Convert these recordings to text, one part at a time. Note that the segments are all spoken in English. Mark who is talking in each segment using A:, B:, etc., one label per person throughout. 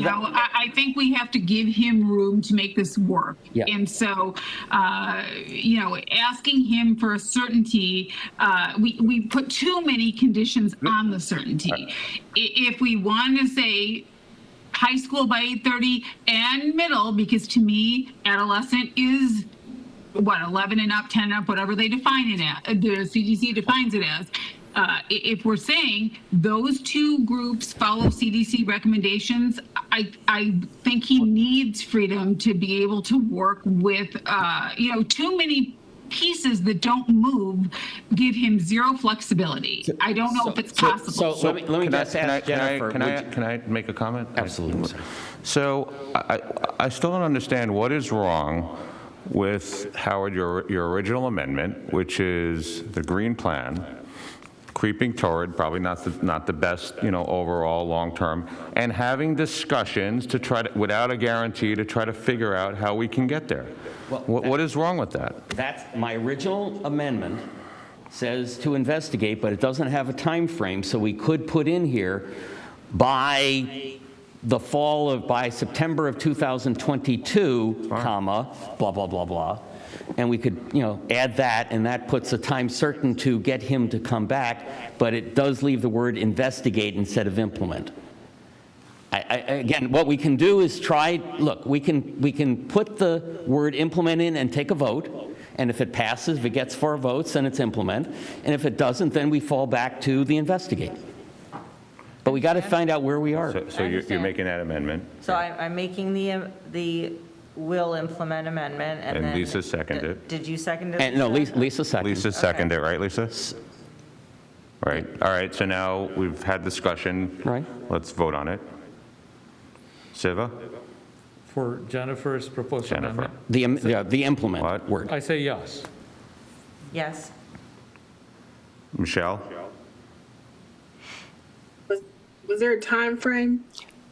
A: No, I, I think we have to give him room to make this work.
B: Yeah.
A: And so, uh, you know, asking him for a certainty, uh, we, we put too many conditions on the certainty. I- If we want to say high school by 8:30 and middle, because to me, adolescent is what, 11 and up, 10 and up, whatever they define it as, the CDC defines it as. Uh, i- if we're saying those two groups follow CDC recommendations, I, I think he needs freedom to be able to work with, uh, you know, too many pieces that don't move give him zero flexibility. I don't know if it's
B: so-
A: possible.
B: so-
C: So let me, let me
D: Can I-
C: just
D: can I-
C: ask
D: can I-
C: Jennifer.
D: Can I,
C: would you-
D: can I make a comment?
C: Absolutely, sir.
D: So I, I- I still don't understand what is wrong with, Howard, your, your original amendment, which is the green plan, creeping toward, probably not the, not the best, you know, overall, long-term, and having discussions to try to, without a guarantee, to try to figure out how we can get there.
C: Well,
D: What, what is wrong with that?
C: That's, my original amendment says to investigate, but it doesn't have a time frame. so we could put in here by the fall of, by September of 2022, comma, blah, blah, blah, blah. And we could, you know, add that, and that puts a time certain to get him to come back, but it does leave the word investigate instead of implement. I- I- Again, what we can do is try, look, we can, we can put the word implement in and take a vote, and if it passes, if it gets four votes, then it's implement, and if it doesn't, then we fall back to the investigate. But we got to find out where we are.
D: So- So you're, you're
E: understand.
D: making that amendment?
E: So I- I'm making the, the will implement amendment, and
D: And
E: then...
D: Lisa seconded.
E: Did you second it?
C: And, no, Lisa Lisa second.
D: Lisa seconded it, right, Lisa? Right, all right, so now we've had discussion.
C: Right.
D: Let's vote on it. Siva?
F: For Jennifer's proposed
D: Jennifer.
F: amendment?
C: The, im- yeah, the implement
D: What?
C: word.
F: I say yes.
E: Yes.
D: Michelle?
G: Was, was there a time frame?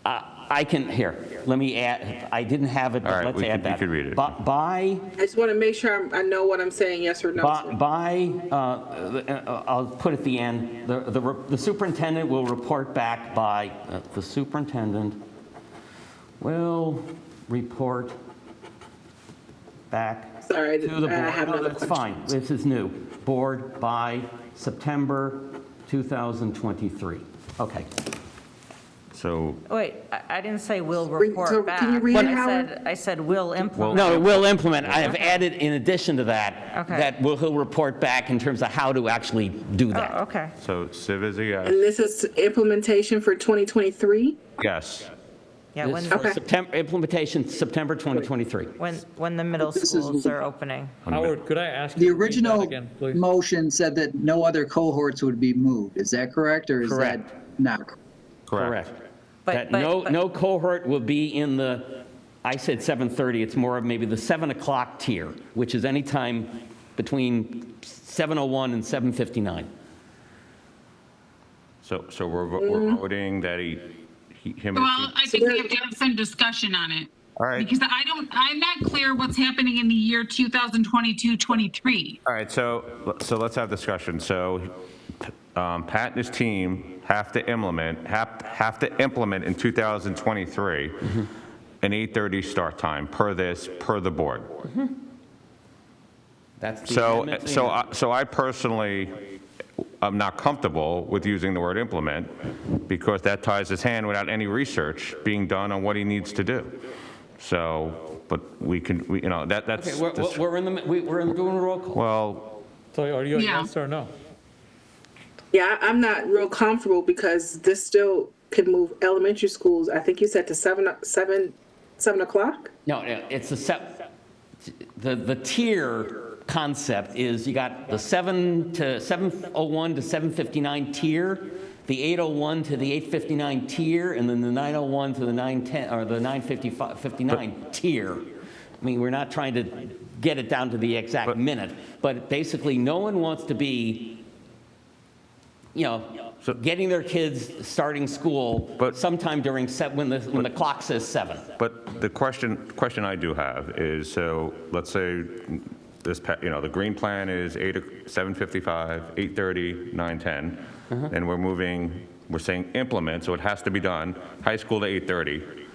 C: I I can, here, let me add, I didn't have it,
D: All
C: but
D: right,
C: let's
D: we
C: add
D: could- you
C: that.
D: could read it.
C: Bu- By
G: I just want to make sure I'm, I know what I'm saying, yes or no.
C: By,
G: to.
C: by, uh, uh, I'll put at the end, the- the re- the superintendent will report back by, uh, the superintendent will report back to
G: Sorry, I
C: the
G: didn't-
C: board.
G: I have
C: No,
G: another
C: that's fine, this is new. Board by September 2023. Okay.
D: So,
E: Oh, Wait, I I didn't say will
G: Re- so
E: report back.
G: can you read it,
E: I
G: Howard?
E: said, I said will implement.
C: No, it will implement, I have added in addition to that,
E: Okay.
C: that will- he'll report back in terms of how to actually do that.
E: Oh, okay.
D: so Siva is a
G: And
D: yes.
G: this is implementation for 2023?
D: Yes.
E: Yeah,
C: This
E: when,
C: is for September, implementation, September 2023.
E: when, when the middle
H: This is-
E: schools are opening.
F: Howard, could I ask?
H: The
F: you to read that
H: original
F: Again, please.
H: motion said that no other cohorts would be moved. Is that correct or is that
C: Correct.
H: not? correct?
C: Correct.
E: But-
C: That
E: but-
C: no,
E: but-
C: no cohort will be in the, I said 7:30, it's more of maybe the 7 o'clock tier, which is any time between 7:01 and 7:59.
D: So, so we're vo-
C: Mm-hmm.
D: we're voting that he, he- him or
A: Well, I
D: she?
A: think we have to have some discussion on it.
D: All right.
A: Because I don't, I'm not clear what's happening in the year 2022, 23.
D: All right, so, so let's have discussion. So um, Pat and his team have to implement, have, have to implement in 2023 an 8:30 start time per this, per the board.
C: That's the
D: So,
C: amendment to the
D: so,
C: amendment.
D: I- so I personally, am not comfortable with using the word implement because that ties his hand without any research being done on what he needs to do. So, but we can, we, you know, that,
C: Okay,
D: that's,
C: we're- we're, we're in the, we- we're in doing a roll call.
D: well,
F: So are you a
A: Yeah.
F: yes or no?
G: Yeah, I- I'm not real comfortable because this still could move elementary schools, I think you said to seven, o- seven, seven o'clock?
C: No, no, it's the, sep- the, the tier concept is you got the 7 to, 7:01 to 7:59 tier, the 8:01 to the 8:59 tier, and then the 9:01 to the 9:10, or the 9:59 tier. I mean, we're not trying to get it down to the exact minute, but basically, no one wants to be, you know, getting their kids starting school
D: But-
C: sometime during, se- when the, when the clock says 7.
D: but the question, question I do have is, so let's say this, pa- you know, the green plan is 8, o- 7:55, 8:30, 9:10, and we're moving, we're saying implement, so it has to be done, high school to 8:30.